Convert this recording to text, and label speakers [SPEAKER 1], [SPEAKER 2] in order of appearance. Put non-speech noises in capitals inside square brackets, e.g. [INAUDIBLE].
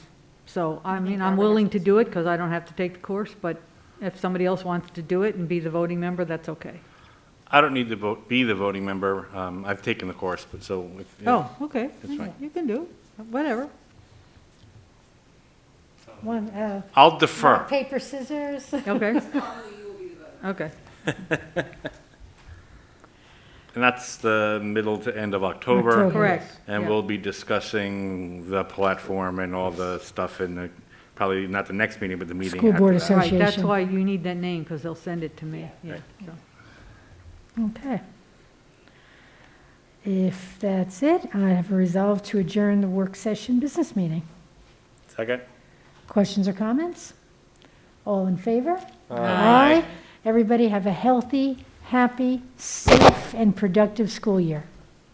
[SPEAKER 1] So, I
[SPEAKER 2] think
[SPEAKER 1] mean,
[SPEAKER 2] Barbara
[SPEAKER 1] I'm
[SPEAKER 2] has
[SPEAKER 1] willing to
[SPEAKER 2] it.
[SPEAKER 1] do it because I don't have to take the course, but if somebody else wants to do it and be the voting member, that's okay.
[SPEAKER 3] I don't need to vote, be the voting member. Um, I've taken the course, but so. if-
[SPEAKER 1] Oh, okay,
[SPEAKER 3] That's fine.
[SPEAKER 1] you can do, it. whatever.
[SPEAKER 2] One, uh,
[SPEAKER 3] I'll defer.
[SPEAKER 2] paper, scissors.
[SPEAKER 1] Okay.
[SPEAKER 3] [LAUGHS]
[SPEAKER 1] Okay,
[SPEAKER 3] And that's the middle to end of October.
[SPEAKER 2] October.
[SPEAKER 1] correct.
[SPEAKER 3] And
[SPEAKER 1] yeah.
[SPEAKER 3] we'll be discussing the platform and all the stuff in the, probably not the next meeting, but the meeting after
[SPEAKER 4] School
[SPEAKER 3] that.
[SPEAKER 4] Board Associ-
[SPEAKER 1] Right, that's
[SPEAKER 4] Association.
[SPEAKER 1] why you need that name because they'll send it to me, yeah.
[SPEAKER 3] Right.
[SPEAKER 1] so.
[SPEAKER 4] Okay. If that's it, I have resolved to adjourn the work session business meeting.
[SPEAKER 3] Second?
[SPEAKER 4] Questions or comments? All in favor?
[SPEAKER 3] Aye.
[SPEAKER 4] Everybody have a healthy, happy, safe, and productive school year.